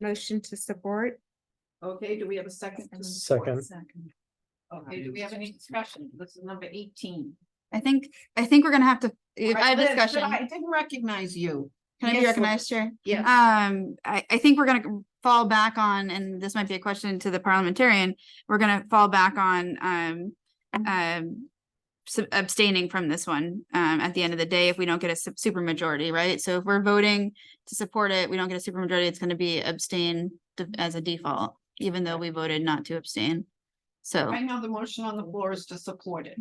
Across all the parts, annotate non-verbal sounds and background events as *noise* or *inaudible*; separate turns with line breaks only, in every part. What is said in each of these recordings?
Motion to support?
Okay, do we have a second? to support?
Second,
Okay, do we have any discussion? This is number eighteen.
I think, I think we're gonna have to, if I have
Liz, but
discussion,
I didn't recognize you.
can I
yes,
be
Liz.
recognized, Chair?
Yes.
Um, I, I think we're gonna fall back on, and this might be a question to the parliamentarian, we're gonna fall back on, um, um, sub- abstaining from this one, um, at the end of the day, if we don't get a sup- super majority, right? So if we're voting to support it, we don't get a super majority, it's gonna be abstain to- as a default, even though we voted not to abstain. So,
Right now, the motion on the floor is to support it.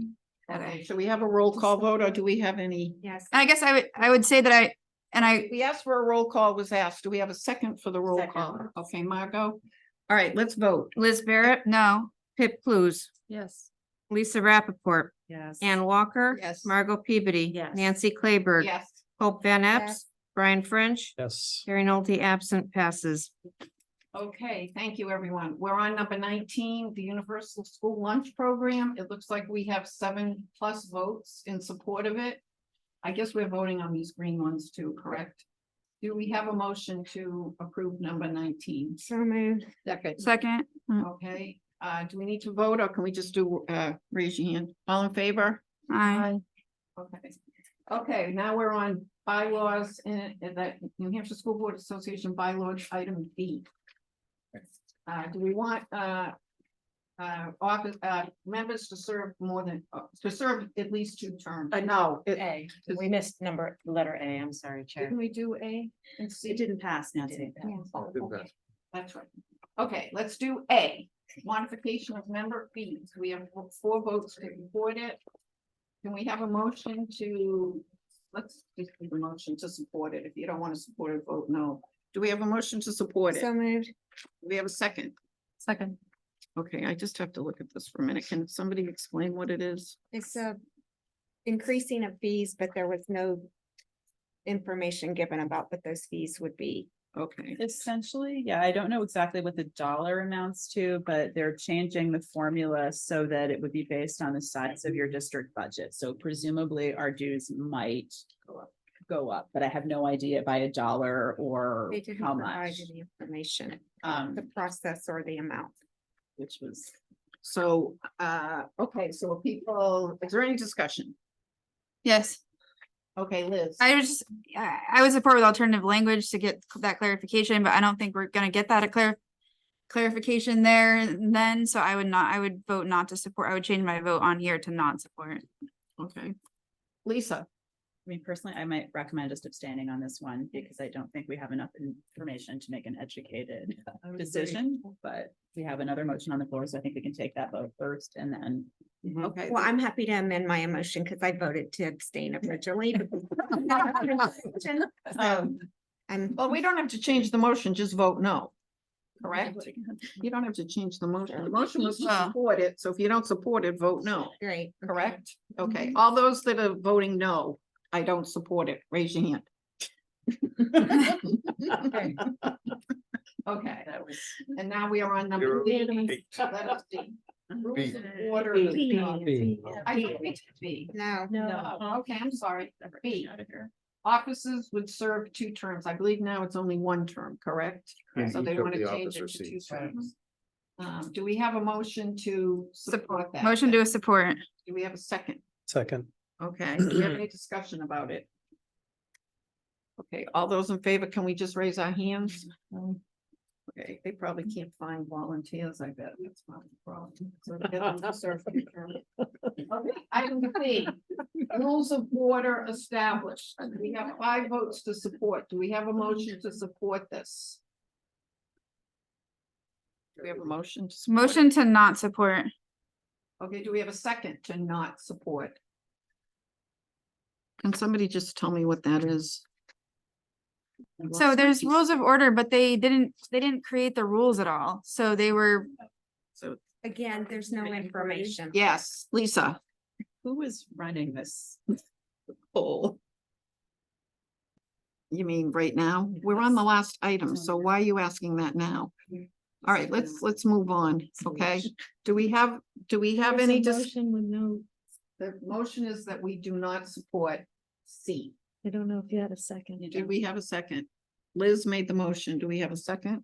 Okay,
Okay.
so we have a roll call vote or do we have any?
Yes.
I guess I would, I would say that I, and I,
We asked for a roll call was asked. Do we have a second for the roll
Second.
call? Okay, Margot? All right, let's vote.
Liz Barrett,
no,
Pip Clues,
Yes.
Lisa Rappaport,
Yes.
Ann Walker.
Yes.
Margot Peabody.
Yes.
Nancy Claiberg.
Yes.
Hope Van
Yes.
Epps, Brian French,
yes.
Carrie Nolte absent passes.
Okay, thank you, everyone. We're on number nineteen, the Universal School Lunch Program. It looks like we have seven plus votes in support of it. I guess we're voting on these green ones too, correct? Do we have a motion to approve number nineteen?
So moved.
Second.
second.
Okay, uh, do we need to vote or can we just do, uh, raise your hand? All in favor?
Aye.
Okay, okay, now we're on bylaws in, in that New Hampshire School Board Association bylaws, item B. Uh, do we want, uh, uh, office, uh, members to serve more than, uh, to serve at least two terms?
Uh, no, it-
A.
we missed number, letter A, I'm sorry, Chair.
Can we do A and C?
It didn't pass, Nancy.
Didn't pass. Oh, okay. That's right. Okay, let's do A, modification of member fees. We have four votes to support it. Can we have a motion to, let's just do the motion to support it. If you don't want to support it, vote no. Do we have a motion to support it?
So
Do
moved.
We have a second.
Second.
Okay, I just have to look at this for a minute. Can somebody explain what it is?
It's a increasing of fees, but there was no information given about what those fees would be.
Okay,
Essentially, yeah, I don't know exactly what the dollar amounts to, but they're changing the formula so that it would be based on the size of your district budget. So presumably our dues might go up, but I have no idea by a dollar or
They didn't
how
provide
much.
any information, the
Um,
process or the amount.
which was,
so, uh, okay, so are people, is there any discussion?
Yes,
Okay, Liz.
I was, just- I, I would support with alternative language to get that clarification, but I don't think we're gonna get that a clar- clarification there and then, so I would not, I would vote not to support, I would change my vote on here to not support.
Okay. Lisa,
I mean, personally, I might recommend just abstaining on this one because I don't think we have enough information to make an educated decision. But we have another motion on the floor, so I think we can take that vote first and then
okay.
Well, I'm happy to amend my emotion because I voted to abstain *laughs* originally.
Um,
I'm,
well, we don't have to change the motion, just vote no. Correct? You don't have to change the motion. The motion was to
Well-
support it, so if you don't support it, vote no,
great. okay.
correct? Okay, all those that are voting no, I don't support it, raise your hand. *laughs* Okay, and now we are on number. B. Let us see. Rules of Order.
B.
B.
I think we did B.
No,
No, okay, I'm sorry. B. Offices would serve two terms. I believe now it's only one term, correct?
Yeah,
So
you
they
took
want to
the
change it
officer
to two
seats.
terms. Um, do we have a motion to support that?
Motion to support.
Do we have a second?
Second,
Okay, do we *clears throat* have any discussion about it? Okay, all those in favor, can we just raise our hands? Okay, they probably can't find volunteers, I bet. That's not a problem. So they don't serve their term. Okay, *laughs* Item B, rules of order established. We have five votes to support. Do we have a motion to support this? Do we have a motion? to support it?
Motion to not support.
Okay, do we have a second to not support? Can somebody just tell me what that is?
So there's rules of order, but they didn't, they didn't create the rules at all. So they were,
So,
again, there's no information.
yes, Lisa.
Who was running this? *laughs*
Oh. You mean right now? We're on the last item, so why are you asking that now? All right, let's, let's move on, okay? Do we have, do we have any? Motion with no. The motion is that we do not support C.
I don't know if you had a second.
Did we have a second? Liz made the motion. Do we have a second?